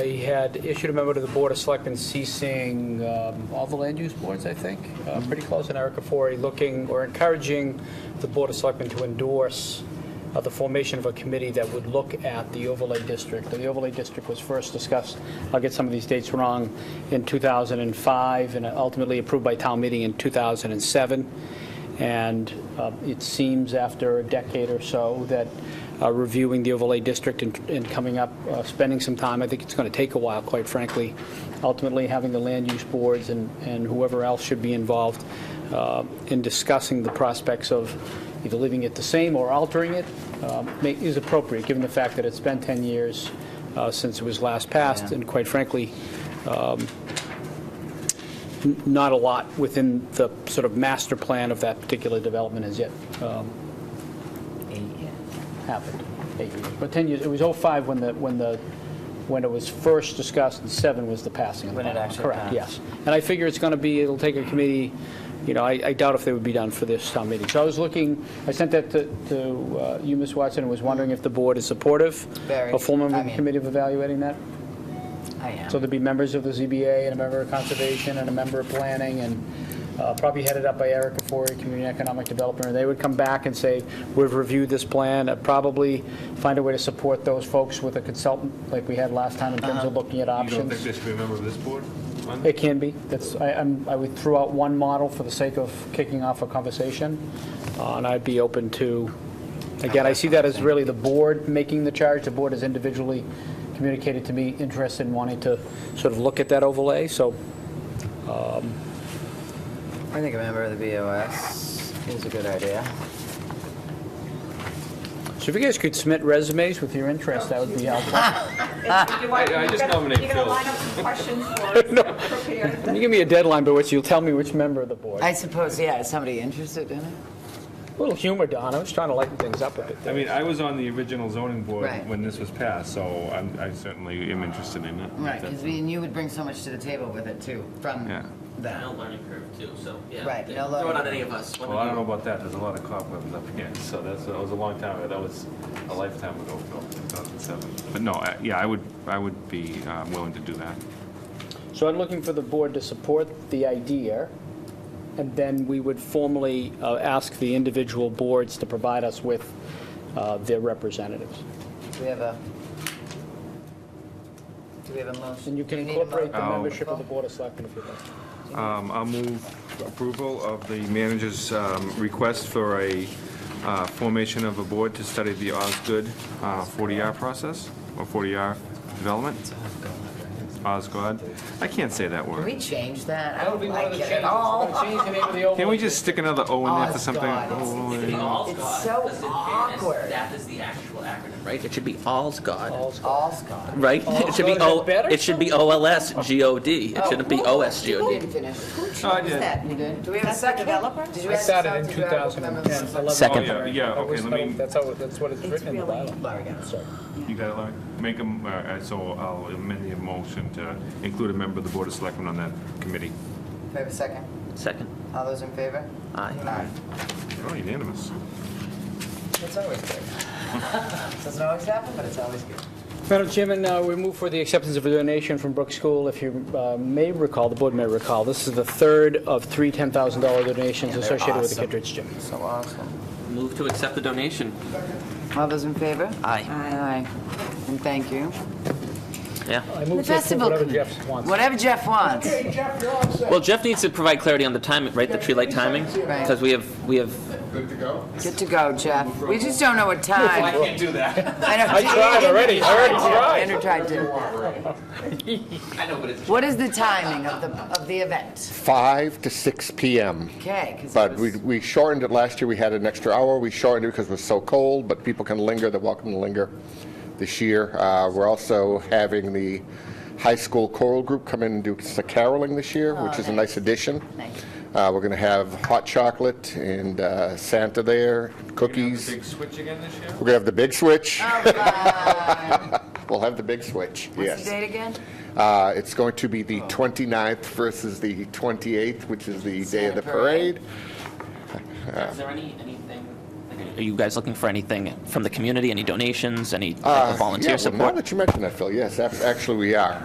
They had issued a memo to the Board of Selectmen ceasing um, all the land use boards, I think, uh, pretty close, and Erica Forey looking or encouraging the Board of Selectmen to endorse uh, the formation of a committee that would look at the overlay district. The overlay district was first discussed, I'll get some of these dates wrong, in 2005 and ultimately approved by town meeting in 2007. And uh, it seems after a decade or so that uh, reviewing the overlay district and and coming up, uh, spending some time, I think it's going to take a while, quite frankly, ultimately having the land use boards and and whoever else should be involved uh, in discussing the prospects of either leaving it the same or altering it um, ma- is appropriate, given the fact that it's been 10 years uh, since it was last passed, and quite frankly, not a lot within the sort of master plan of that particular development has yet um, happened. Eight years. But 10 years, it was '05 when the, when the, when it was first discussed, and '07 was the passing of the bylaw. When it actually Correct, passed. yes. And I figure it's going to be, it'll take a committee, you know, I I doubt if they would be done for this town meeting. So I was looking, I sent that to- to uh, you, Ms. Watson, and was wondering if the board is supportive Very. of forming I a mean- committee of evaluating that? I am. So there'd be members of the ZBA and a member of Conservation and a member of Planning and uh, probably headed up by Erica Forey, Community Economic Developer. And they would come back and say, we've reviewed this plan, and probably find a way to support those folks with a consultant like we had last time in terms of looking at Uh-huh. You don't think options. they should be a member of this board? on It can be. That's, I, I'm- I would throw out one model for the sake of kicking off a conversation. uh, And I'd be open to, again, I see that as really the board making the charge. The board has individually communicated to me interest in wanting to sort of look at that overlay. So I think a member of the BOS is a good idea. So if you guys could submit resumes with your interest, that would be helpful. If you want- I- I you're just gonna- nominate You're going Phil. to line up some questions for us, No. prepared. Can you give me a deadline by which you'll tell me which member of the board? I suppose, yeah, is somebody interested in it? A little humor, Don, I was trying to lighten things up a bit I there. mean, I was on the original zoning board Right. when this was passed, so I'm- I certainly am interested in it. Right, because you would bring so much to the table with it too, from Yeah. that. No learning curve too, so yeah. Right, They- no Throw it learning on any of us. Well, I don't know about that, there's a lot of cobwebs up here, so that's, that was a long time ago, that was a lifetime ago, Phil, 2007. But no, I- yeah, I would, I would be um, willing to do that. So I'm looking for the board to support the idea, and then we would formally uh, ask the individual boards to provide us with uh, their representatives. Do we have a, do we have a motion? And you can Do we need a incorporate the motion? membership of the Board of Selectmen if you'd like. Um, I'll move approval of the manager's um, request for a uh, formation of a board to study the Osgood uh, 40R process, or 40R development. Osgood, I can't say that Can word. we change that? I don't like it at all. Change the name of the old Can we just stick another O in there for something? Osgood. It's the Oh, All's It's God, so because in fairness, awkward. That is the actual acronym, right? It should be All's God, All's- All Scott. right? It should be God, is O, that better? it should be OLSGOD. Oh, It shouldn't be You OSGOD. didn't finish. Who chose I did. that? You did? Do we have a second? developer? Did you I ask started in yourself to grab a member? 2011. Second. Oh, yeah, yeah, okay, let me, That's how, that's what it's It's written in the really- bylaw. Larry got it. Sorry. you got it, Larry? Make them, so I'll amend the motion to include a member of the Board of Selectmen on that committee. Do we have a second? Second. All those in favor? Aye. Aye. Oh, unanimous. It's always good. Doesn't always happen, but it's always good. Madam Chairman, uh, we move for the acceptance of a donation from Brook School. If you uh, may recall, the board may recall, this is the third of three $10,000 donations they're associated with the awesome. Kittredge Gym. So awesome. Move to accept the donation. All those in favor? Aye. Aye. And thank you. Yeah. I move to approve festival whatever committee. Jeff wants. Whatever Jeff wants. Well, Jeff needs to provide clarity on the timing, right? The tree light timing? Right. Because we have, we have, Good to go, Jeff. We just don't know what time. can't do that. I know. I tried already, I already tried. Andrew tried to. I know, but it's. What is the timing of the, of the event? 5 to 6 p.m. Okay, 'cause it But we was- we shortened it last year, we had an extra hour, we shortened it because it was so cold, but people can linger, they're welcome to linger this year. Uh, We're also having the high school choral group come in and do some caroling this year, which is a nice addition. Oh, Nice. Uh, We're going to have hot chocolate and uh, Santa there, cookies. Big switch again this year? We're going to have the big switch. Uh, We'll have the big switch, What's the yes. date again? Uh, It's going to be the Oh. 29th versus the 28th, which is the day Santa of the parade. parade. Is there any, anything, like any uh, Are you guys looking for anything from the community? Any donations? Any type Uh, of volunteer yeah, well, support? Now that you mention that, Phil, yes, ac- actually, we are.